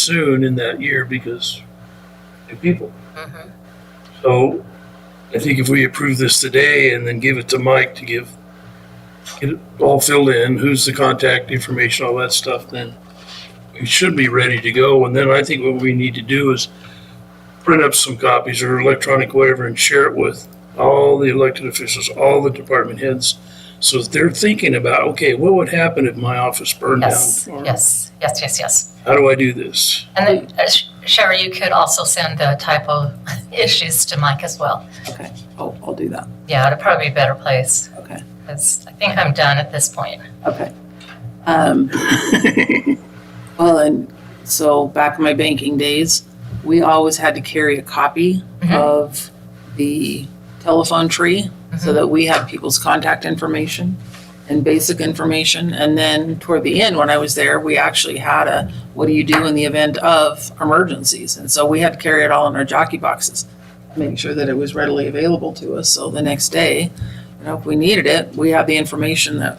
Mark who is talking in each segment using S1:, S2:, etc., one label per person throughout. S1: soon in that year because two people.
S2: Mhm.
S1: So I think if we approve this today and then give it to Mike to give, get it all filled in, who's the contact information, all that stuff, then we should be ready to go. And then I think what we need to do is print up some copies or electronic whatever and share it with all the elected officials, all the department heads. So that they're thinking about, okay, what would happen if my office burned down
S2: Yes,
S1: tomorrow?
S2: yes, yes, yes, yes.
S1: How do I do this?
S2: And then, uh, Sh- Sherry, you could also send the typo issues to Mike as well.
S3: Okay, I'll, I'll do that.
S2: Yeah, it'd probably be a better place,
S3: Okay,
S2: because I think I'm done at this point.
S3: okay. Um, Well, and so back in my banking days, we always had to carry a copy
S2: Mhm.
S3: of the telephone tree so that we had people's contact information and basic information. And then toward the end, when I was there, we actually had a, what do you do in the event of emergencies? And so we had to carry it all in our jockey boxes, making sure that it was readily available to us. So the next day, you know, if we needed it, we had the information that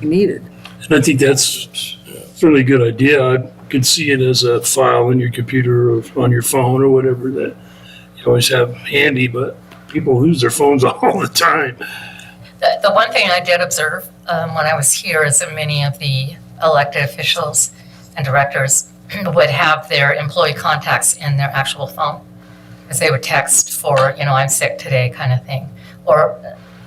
S3: we needed.
S1: And I think that's a really good idea. I could see it as a file in your computer or on your phone or whatever that you always have handy, but people lose their phones all the time.
S2: The, the one thing I did observe um, when I was here is that many of the elected officials and directors would have their employee contacts in their actual phone. Because they would text for, you know, I'm sick today kind of thing. Or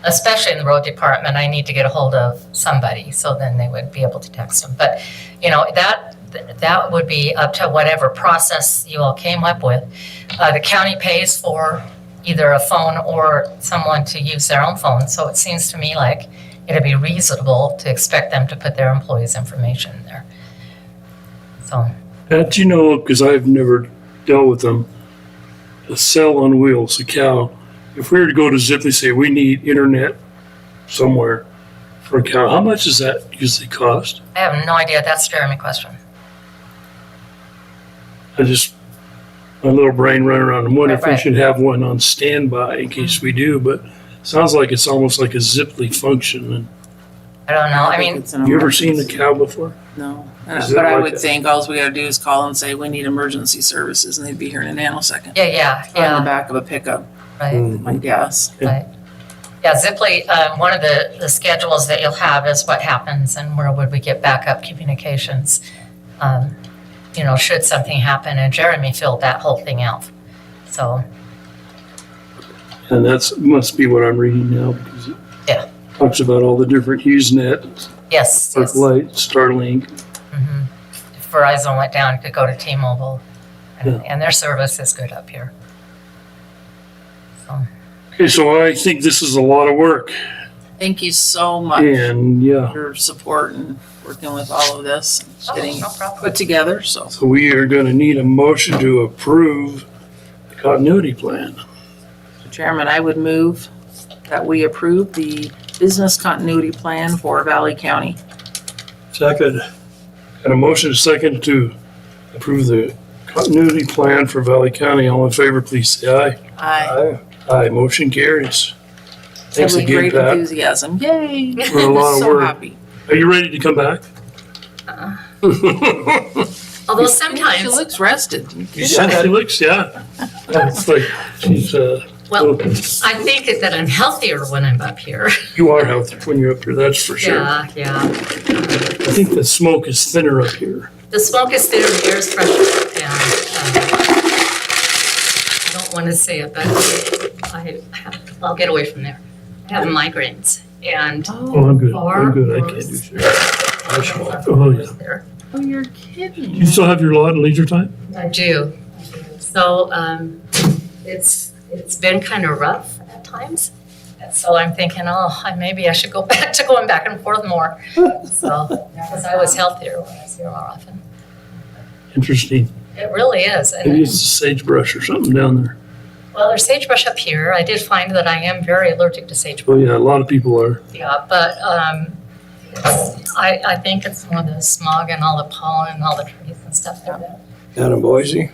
S2: especially in the road department, I need to get a hold of somebody. So then they would be able to text them. But, you know, that, that would be up to whatever process you all came up with. Uh, the county pays for either a phone or someone to use their own phone. So it seems to me like it'd be reasonable to expect them to put their employees' information in there. So,
S1: Pat, you know, because I've never dealt with them, a cell on wheels, a cow. If we were to go to Zip, they say we need internet somewhere for a cow. How much does that usually cost?
S2: I have no idea. That's Jeremy question.
S1: I just, my little brain running around, I'm wondering if we
S2: Right. Mm-hmm.
S1: should have one on standby in case we do, but sounds like it's almost like a Ziply function. And
S2: I don't know. I
S3: think
S2: mean,
S3: it's an
S1: You ever seen the
S3: emergency.
S1: cow before?
S3: No, Uh,
S1: Is it
S3: but I
S1: like
S3: would
S1: a-
S3: think all we gotta do is call and say, we need emergency services, and they'd be here in a nanosecond.
S2: yeah, yeah,
S3: On the
S2: yeah,
S3: back of a pickup,
S2: right.
S1: Mm.
S3: my guess.
S2: Right. Yeah, Ziply, um, one of the, the schedules that you'll have is what happens and where would we get backup communications? Um, you know, should something happen, and Jeremy filled that whole thing out. So,
S1: And that's, must be what I'm reading now because it
S2: Yeah.
S1: talks about all the different HughesNet,
S2: yes. yes.
S1: Arclight, Starlink.
S2: Mhm. If Verizon went down, could go to T-Mobile, and, and their service is good up here. So,
S1: Okay, so I think this is a lot of work
S3: Thank you so much
S1: and yeah,
S3: for your support and working with all of this, and getting
S2: Oh, no
S3: it
S2: problem.
S3: put together, so.
S1: so we are going to need a motion to approve the continuity plan.
S3: Chairman, I would move that we approve the business continuity plan for Valley County.
S1: Second. And a motion is second to approve the continuity plan for Valley County. All in favor, please say aye.
S3: I
S1: Aye. Aye, motion carries.
S3: have
S1: Uh, Thanks
S3: a
S1: again,
S3: great
S1: Pat.
S3: enthusiasm, yay.
S1: For a lot of
S3: So
S1: work.
S3: happy.
S1: Are you ready to come back?
S2: Uh-uh. although
S3: She
S2: sometimes,
S3: looks rested.
S1: You said she looks, yeah. It's like, she's, uh,
S2: well, I think that I'm healthier when I'm up here.
S1: you are healthy when you're up here, that's for sure.
S2: Yeah, yeah.
S1: I think the smoke is thinner up here.
S2: The smoke is thinner, the air is fresher, and um, I don't want to say it, but I, have- I'll get away from there. I have migraines, and
S1: Oh, I'm good,
S2: Far
S1: I'm good, I can't do shit. I shall- Oh, yeah.
S2: there.
S3: Oh, you're kidding.
S1: You still have your lot and leisure time?
S2: I do. So um, it's, it's been kind of rough at times. And So I'm thinking, oh, I- maybe I should go back to going back and forth more. So, because I was healthier when I was here more often.
S1: Interesting.
S2: It really is.
S1: Maybe
S2: And,
S1: it's the sagebrush or something down there.
S2: well, there's sagebrush up here. I did find that I am very allergic to sagebrush.
S1: Oh, yeah, a lot of people are.
S2: Yeah, but um, I, I think it's more the smog and all the pollen and all the trees and stuff there. that-
S4: Down in Boise?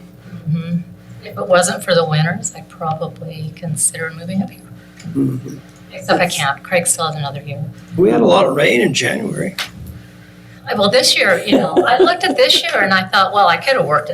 S2: mhm. If it wasn't for the winters, I'd probably consider moving up here.
S4: Mm-hmm.
S2: Except I can't. Craig still has another year.
S4: We had a lot of rain in January.
S2: I- Well, this year, you know, I looked at this year and I thought, well, I could have worked